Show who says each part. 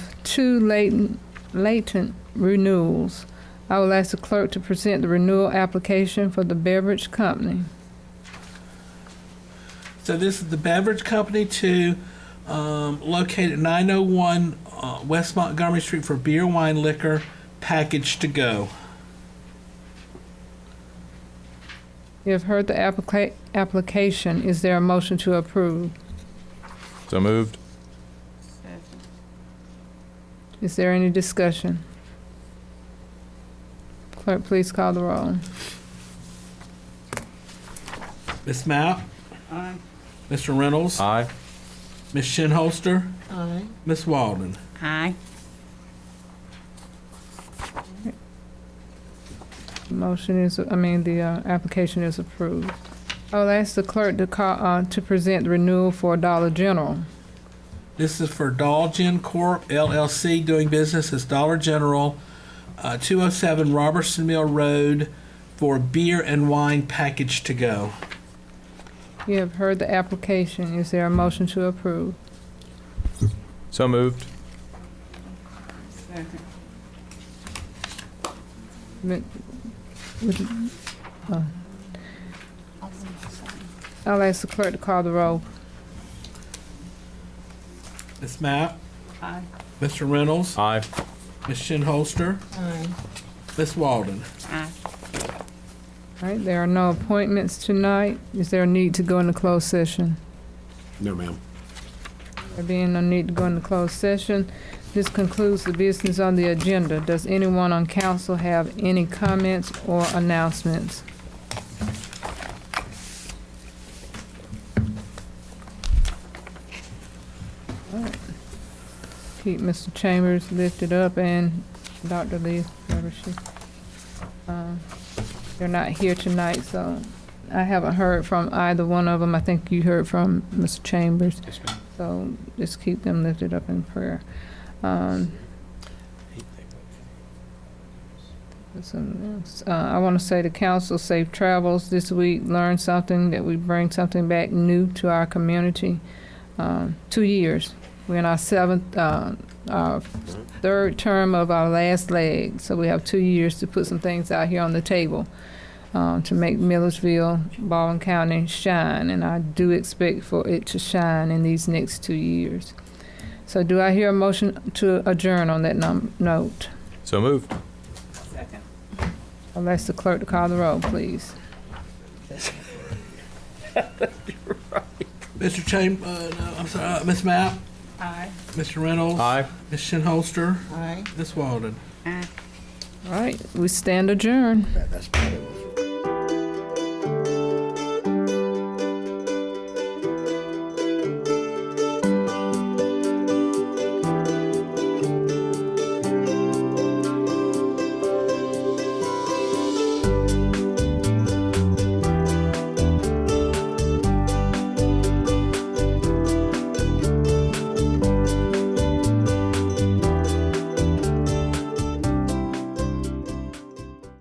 Speaker 1: two latent, latent renewals. I will ask the clerk to present the renewal application for the beverage company.
Speaker 2: So this is the beverage company to um, located 901 uh, West Montgomery Street for beer, wine, liquor, package to go.
Speaker 1: You have heard the applica- application. Is there a motion to approve?
Speaker 3: So moved.
Speaker 1: Is there any discussion? Clerk, please call the roll.
Speaker 2: Miss Mapp?
Speaker 4: Aye.
Speaker 2: Mr. Reynolds?
Speaker 5: Uh.
Speaker 3: Aye.
Speaker 2: Miss Shinholster?
Speaker 4: Aye.
Speaker 2: Miss Walden?
Speaker 4: Aye.
Speaker 1: Motion is, I mean, the uh, application is approved. I will ask the clerk to call, uh, to present the renewal for Dollar General.
Speaker 2: This is for Dolgen Corp. LLC doing business as Dollar General, uh, 207 Robertson Mill Road for beer and wine package to go.
Speaker 1: You have heard the application. Is there a motion to approve?
Speaker 3: So moved.
Speaker 1: Mi- would- uh, I'll ask the clerk to call the roll.
Speaker 2: Miss Mapp?
Speaker 4: Aye.
Speaker 2: Mr. Reynolds?
Speaker 5: Uh.
Speaker 3: Aye.
Speaker 2: Miss Shinholster?
Speaker 4: Aye.
Speaker 2: Miss Walden?
Speaker 4: Aye.
Speaker 1: All right, there are no appointments tonight. Is there a need to go into closed session?
Speaker 5: No, ma'am.
Speaker 1: There being no need to go into closed session, this concludes the business on the agenda. Does anyone on council have any comments or announcements? All right. Keep Mr. Chambers lifted up and Dr. Lee, whoever she, um, they're not here tonight, so I haven't heard from either one of them. I think you heard from Mr. Chambers. So just keep them lifted up in prayer. Um, something else. Uh, I want to say to council, safe travels this week. Learn something, that we bring something back new to our community. Um, Two years. We're in our seventh, uh, our third term of our last leg. So we have two years to put some things out here on the table um, to make Millersville, Baldwin County shine, and I do expect for it to shine in these next two years. So do I hear a motion to adjourn on that num- note?
Speaker 3: So moved.
Speaker 4: Second.
Speaker 1: I'll ask the clerk to call the roll, please.
Speaker 2: Mr. Cham, uh, no, I'm sorry, uh, Miss Mapp?
Speaker 4: Aye.
Speaker 2: Mr. Reynolds?
Speaker 3: Aye.
Speaker 2: Miss Shinholster?
Speaker 4: Aye.
Speaker 2: Miss Walden?
Speaker 4: Aye.
Speaker 1: All right, we stand adjourned.
Speaker 5: That- That's probably what